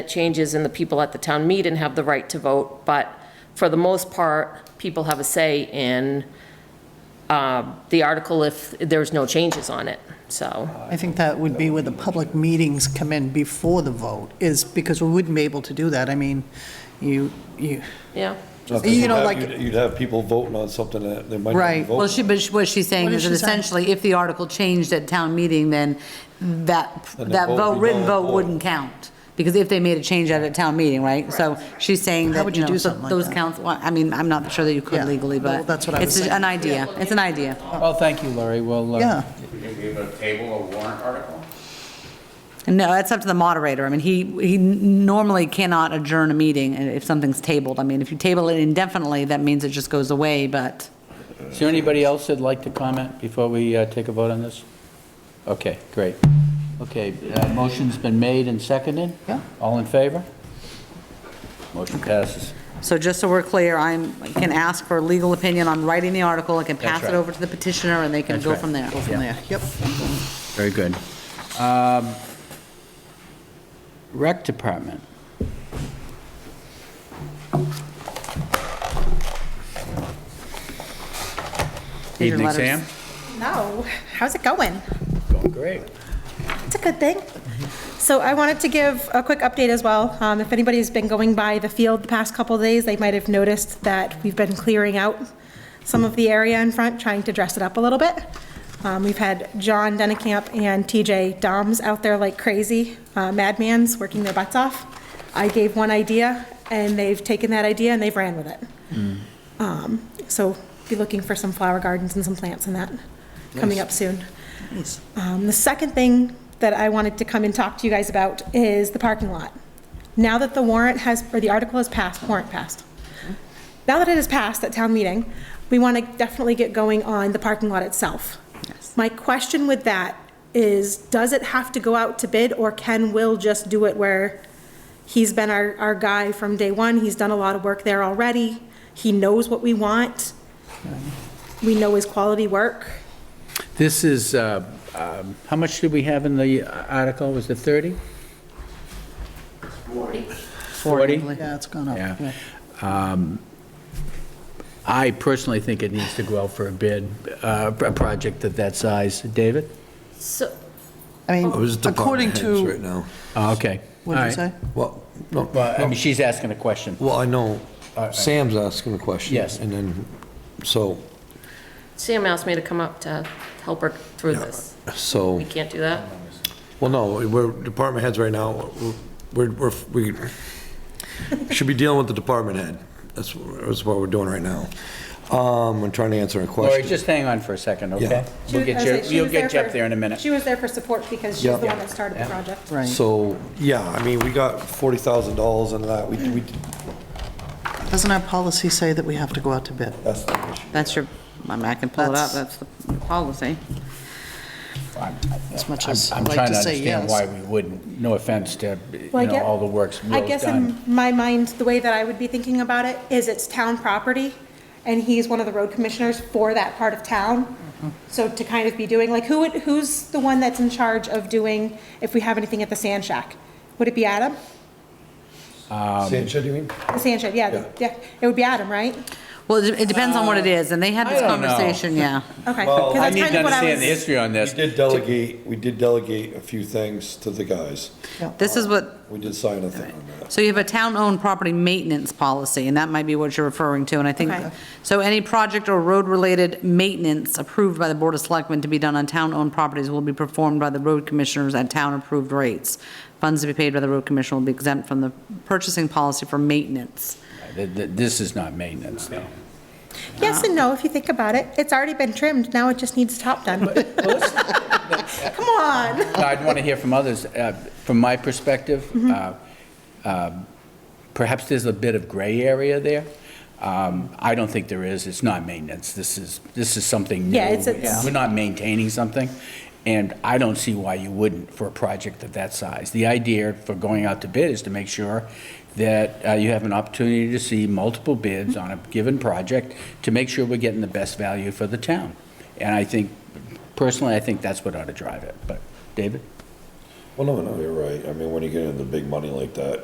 changes and the people at the town meet and have the right to vote, but for the most part, people have a say in um, the article if there's no changes on it, so. I think that would be where the public meetings come in before the vote, is because we wouldn't be able to do that. I mean, you, you, Yeah, You You'd know, have- like- You'd you'd have people voting on something that they might not Right. vote. Well, she, but she- what she's saying What is is that she saying? essentially, if the article changed at town meeting, then that, Then the that vote would vote, be written null and vote void. wouldn't count, because if they made a change at a town meeting, right? So she's saying How that, would you you know, do so something like those that? counts, well, I mean, I'm not sure that you Yeah, could legally, well, but that's what I it's was an idea, it's an idea. Well, thank you, Lori. We'll, uh, yeah. Can we able to table a warrant article? No, that's up to the moderator. I mean, he, he normally cannot adjourn a meeting if something's tabled. I mean, if you table it indefinitely, that means it just goes away, but. Is there anybody else that'd like to comment before we uh, take a vote on this? Okay, great. Okay, uh, motion's been made and seconded? Yeah. All in favor? Motion passes. So just so we're clear, I'm, I can ask for legal opinion on writing the article, I can pass it right. over to the petitioner, and they can That's go right. from there. Go from there, yep. Very good. Um, Rec Department. These are Evening, letters. Sam. No, how's it going? Going great. It's a good thing. So I wanted to give a quick update as well. Um, If anybody's been going by the field the past couple of days, they might have noticed that we've been clearing out some of the area in front, trying to dress it up a little bit. Um, We've had John Dennekamp and TJ Doms out there like crazy, uh, madmans, working their butts off. I gave one idea, and they've taken that idea and they've ran with it. Um, So be looking for some flower gardens and some plants and that coming up soon. Um, The second thing that I wanted to come and talk to you guys about is the parking lot. Now that the warrant has, or the article has passed, warrant passed. Now that it has passed at town meeting, we want to definitely get going on the parking lot itself. My question with that is, does it have to go out to bid, or can Will just do it where he's been our, our guy from day one, he's done a lot of work there already, he knows what we want, we know his quality work. This is, uh, um, how much did we have in the uh, article? Was it 30? 40. 40? Yeah, it's gone up. Yeah. I personally think it needs to go out for a bid, uh, a project of that size. David? so, I mean, Oh, It was according department heads right to, now. Oh, Okay. what did you All say? right. Well, no, Well, I no, mean, she's asking a question. well, I know, right. Sam's asking a question. Yes. And then, so, Sam asked me to come up to help her through this. so, We can't do that? well, no, we're department heads right now. We're, we're, we should be dealing with the department head. That's, what- that's what we're doing right now. Um, I'm trying to answer a Lori, question. just hang on for a second, okay? Yeah. We'll She was- get I you, was like, she you'll was get you up for- there in a minute. She was there for support because she's Yeah. the one that started the project. Right. So, yeah, I mean, we got $40,000 in that. We, we, Doesn't our policy say that we have to go out to bid? that's the issue. That's your, I mean, I can pull it up, That's- that's the policy. As much as I'm I'd trying like to to say yes. understand why we wouldn't, no offense to, you Well, I know, get- all the works I Will's guess done. in my mind, the way that I would be thinking about it is it's town property, and he's one of the road commissioners for that part of town. Mm-hmm. So to kind of be doing, like, who would, who's the one that's in charge of doing, if we have anything at the sand shack? Would it be Adam? Um, Sancho, do you mean? The sand shack, yeah, the- yeah, it would be Adam, right? Well, it depends on what it is, and they had Uh, I this don't know. conversation, yeah. Okay. Well, 'cause I that's need kind to of what understand was- the history on We this. did delegate, we did delegate a few things to the guys. This is what, We did sign a thing on that. So you have a town-owned property maintenance policy, and that might be what you're referring to, and I think, Okay. so any project or road-related maintenance approved by the Board of Selectmen to be done on town-owned properties will be performed by the road commissioners at town-approved rates. Funds to be paid by the road commissioner will be exempt from the purchasing policy for maintenance. Th- th- This is not maintenance, though. Yes and no, if you think about it. It's already been trimmed, now it just needs top done. Come on. No, I'd want to hear from others. Uh, From my perspective, Mm-hmm. uh, um, perhaps there's a bit of gray area there. Um, I don't think there is. It's not maintenance. This is, this is something new. Yeah, it's- it's- We're not maintaining something, and I don't see why you wouldn't for a project of that size. The idea for going out to bid is to make sure that uh, you have an opportunity to see multiple bids on a given project to make sure we're getting the best value for the town. And I think, personally, I think that's what ought to drive it. But, David? Well, no, no, you're right. I mean, when you get into big money like that,